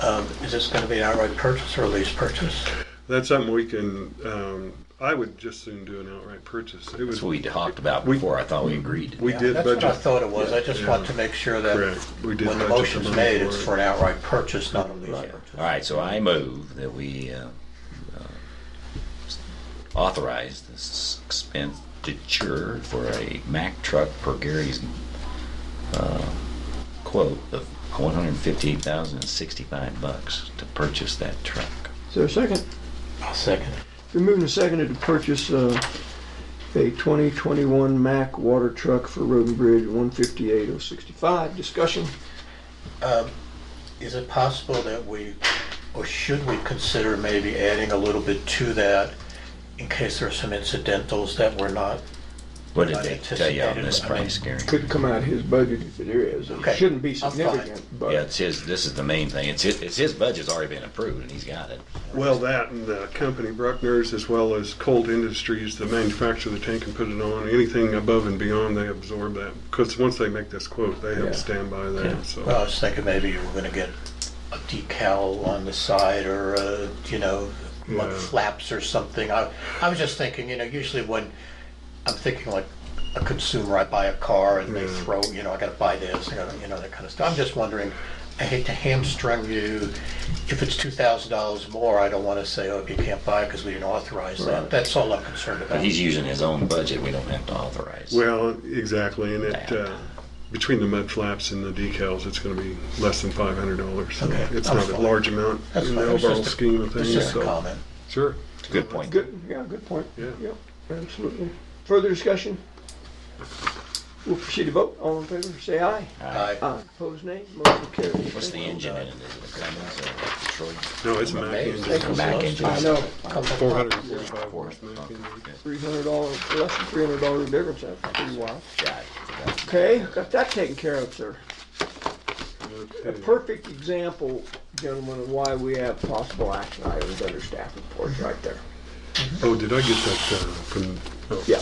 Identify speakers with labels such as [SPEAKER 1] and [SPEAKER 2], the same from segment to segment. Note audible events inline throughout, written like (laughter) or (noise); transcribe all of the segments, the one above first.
[SPEAKER 1] Um, Is this going to be an outright purchase or a lease purchase?
[SPEAKER 2] That's something we can, um, I would just soon do an outright purchase. It was,
[SPEAKER 3] That's what we talked about
[SPEAKER 2] We-
[SPEAKER 3] before. I thought we agreed.
[SPEAKER 2] we did
[SPEAKER 1] That's what I
[SPEAKER 2] budget,
[SPEAKER 1] thought it was. I just
[SPEAKER 2] Yeah.
[SPEAKER 1] want to make sure that
[SPEAKER 2] correct. We did
[SPEAKER 1] when the
[SPEAKER 2] budget
[SPEAKER 1] motion's
[SPEAKER 2] money
[SPEAKER 1] made, it's for
[SPEAKER 2] it.
[SPEAKER 1] an outright purchase, not a lease
[SPEAKER 3] Right.
[SPEAKER 1] purchase.
[SPEAKER 3] All right, so I move that we uh, uh, authorize this expenditure for a Mack truck per Gary's uh, quote of one hundred fifty-eight thousand and sixty-five bucks to purchase that truck.
[SPEAKER 4] Is there a second?
[SPEAKER 1] I'll second.
[SPEAKER 4] We're moving to seconded to purchase uh, a 2021 Mack water truck for Road and Bridge, 158,065. Discussion?
[SPEAKER 1] Um, Is it possible that we, or should we consider maybe adding a little bit to that in case there are some incidentals that we're not?
[SPEAKER 3] What did they tell you on this price, Gary?
[SPEAKER 4] Could come out of his budget if it is. It
[SPEAKER 1] Okay.
[SPEAKER 4] shouldn't be
[SPEAKER 1] I'm fine.
[SPEAKER 4] significant,
[SPEAKER 3] Yeah,
[SPEAKER 4] but
[SPEAKER 3] it's his, this is the main thing. It's his, it's his budget's already been approved and he's got it.
[SPEAKER 2] Well, that and the company Bruckner's as well as Colt Industries, the manufacturer of the tank and put it on, anything above and beyond, they absorb that. Because once they make this quote, they have
[SPEAKER 4] Yeah.
[SPEAKER 2] to stand by
[SPEAKER 3] Yeah.
[SPEAKER 2] that, so.
[SPEAKER 1] Well, I was thinking maybe you were gonna get a decal on the side or, uh, you know, mud
[SPEAKER 2] Yeah.
[SPEAKER 1] flaps or something. I, I was just thinking, you know, usually when, I'm thinking like a consumer, I buy a car and they
[SPEAKER 2] Yeah.
[SPEAKER 1] throw, you know, I gotta buy this, I gotta, you know, that kind of stuff. I'm just wondering, I hate to hamstring you. If it's two thousand dollars more, I don't wanna say, oh, you can't buy it because we didn't authorize that. That's all I'm concerned
[SPEAKER 3] But
[SPEAKER 1] about.
[SPEAKER 3] he's using his own budget. We don't have to authorize.
[SPEAKER 2] Well, exactly, and it,
[SPEAKER 3] Yeah.
[SPEAKER 2] uh, between the mud flaps and the decals, it's gonna be less than five hundred dollars, so
[SPEAKER 1] Okay,
[SPEAKER 2] it's
[SPEAKER 1] I'm
[SPEAKER 2] not a
[SPEAKER 1] fine.
[SPEAKER 2] large amount
[SPEAKER 1] That's
[SPEAKER 2] in
[SPEAKER 1] fine.
[SPEAKER 2] the
[SPEAKER 1] It's
[SPEAKER 2] overall
[SPEAKER 1] just a-
[SPEAKER 2] scheme of
[SPEAKER 1] It's
[SPEAKER 2] things,
[SPEAKER 1] just a
[SPEAKER 2] so.
[SPEAKER 1] comment.
[SPEAKER 2] Sure.
[SPEAKER 3] Good point.
[SPEAKER 4] good, yeah, good point.
[SPEAKER 2] Yeah.
[SPEAKER 4] Yep, absolutely. Further discussion? We'll proceed to vote. All in favor, say aye.
[SPEAKER 1] I-
[SPEAKER 4] Aye. Opposed, nay. Motion carries.
[SPEAKER 3] What's the engine in it? Is it a Cummins or a Detroit?
[SPEAKER 2] No, it's a Mack
[SPEAKER 1] amazed.
[SPEAKER 2] engine,
[SPEAKER 3] A Mack engine?
[SPEAKER 4] I know.
[SPEAKER 2] four hundred and forty-five watts Mack
[SPEAKER 3] Okay,
[SPEAKER 2] engine.
[SPEAKER 3] good.
[SPEAKER 4] $300, less than $300 difference. That's pretty wild.
[SPEAKER 3] Got it. Got it.
[SPEAKER 4] Okay, got that taken care of, sir. A
[SPEAKER 2] Okay.
[SPEAKER 4] perfect example, gentlemen, of why we have possible action items under staff reports right there.
[SPEAKER 2] Oh, did I get that, uh, from? oh.
[SPEAKER 4] Yeah.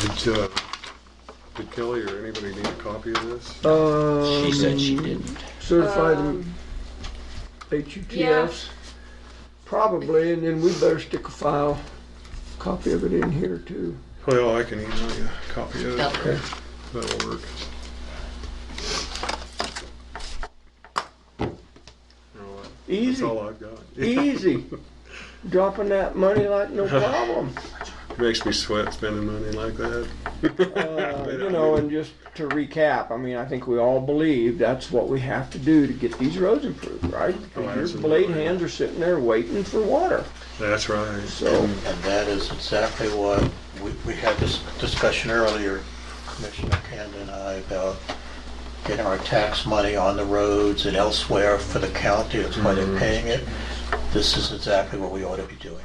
[SPEAKER 2] Did, uh, did Kelly or anybody need a copy of this?
[SPEAKER 3] She said she didn't.
[SPEAKER 4] Um, Certified HUTFs, probably, and then we better stick a file, copy of it in here too.
[SPEAKER 2] Well, I can email you a copy of it,
[SPEAKER 4] Okay.
[SPEAKER 2] that'll work. Oh, That's
[SPEAKER 4] Easy,
[SPEAKER 2] all I've got. (laughs)
[SPEAKER 4] easy. Dropping that money like no problem,
[SPEAKER 2] Makes me sweat spending money like that. (laughs)
[SPEAKER 4] Uh, you know, and just to recap, I mean, I think we all believe that's what we have to do to get these roads improved, right? Because your blade hands are sitting there waiting for water,
[SPEAKER 2] That's right.
[SPEAKER 4] so.
[SPEAKER 1] And that is exactly what, we, we had this discussion earlier, Commissioner Cannon and I, about getting our tax money on the roads and elsewhere for the county, that's why they're paying it. This is exactly what we ought to be doing.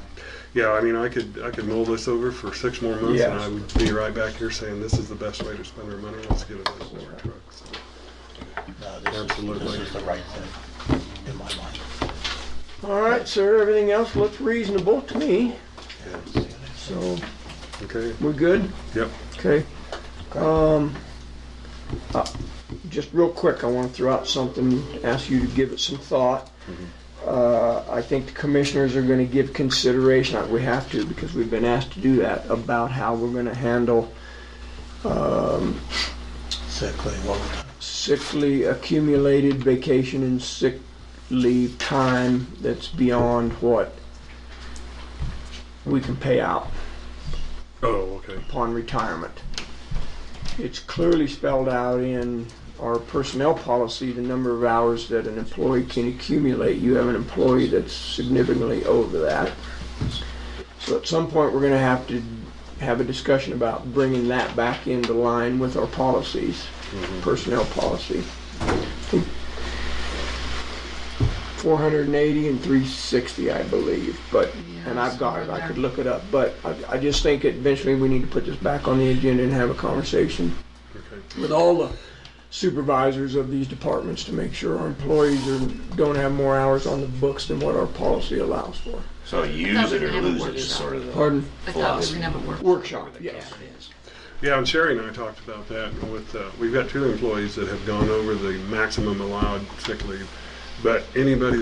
[SPEAKER 2] Yeah, I mean, I could, I could mull this over for six more months and
[SPEAKER 4] Yes.
[SPEAKER 2] I would be right back here saying, this is the best way to spend our money, let's get a nice water truck. So,
[SPEAKER 1] No, this is, this
[SPEAKER 2] Absolutely.
[SPEAKER 1] is the right thing, in my mind.
[SPEAKER 4] All right, sir, everything else looks reasonable to me, so
[SPEAKER 2] Okay,
[SPEAKER 4] we're good?
[SPEAKER 2] yep.
[SPEAKER 4] Okay. Um, uh, just real quick, I want to throw out something, ask you to give it some thought. Uh, I think the commissioners are going to give consideration, uh, we have to, because we've been asked to do that, about how we're going to handle um,
[SPEAKER 1] Exactly, what we're
[SPEAKER 4] sickly accumulated vacation and sick leave time that's beyond what we can pay out.
[SPEAKER 2] Oh, okay.
[SPEAKER 4] upon retirement. It's clearly spelled out in our personnel policy, the number of hours that an employee can accumulate. You have an employee that's significantly over that. So at some point, we're gonna have to have a discussion about bringing that back into line with our policies, personnel policy. 480 and 360, I believe, but, and I've got it, I could look it up, but I, I just think eventually we need to put this back on the agenda and have a conversation
[SPEAKER 2] Okay.
[SPEAKER 4] with all the supervisors of these departments to make sure our employees are, don't have more hours on the books than what our policy allows for.
[SPEAKER 3] So use it or lose it is sort of the
[SPEAKER 4] Pardon?
[SPEAKER 5] I thought we were gonna have a workshop.
[SPEAKER 4] Workshop, yes.
[SPEAKER 2] Yeah, and Sherry and I talked about that with, uh, we've got two employees that have gone over the maximum allowed sick leave. But anybody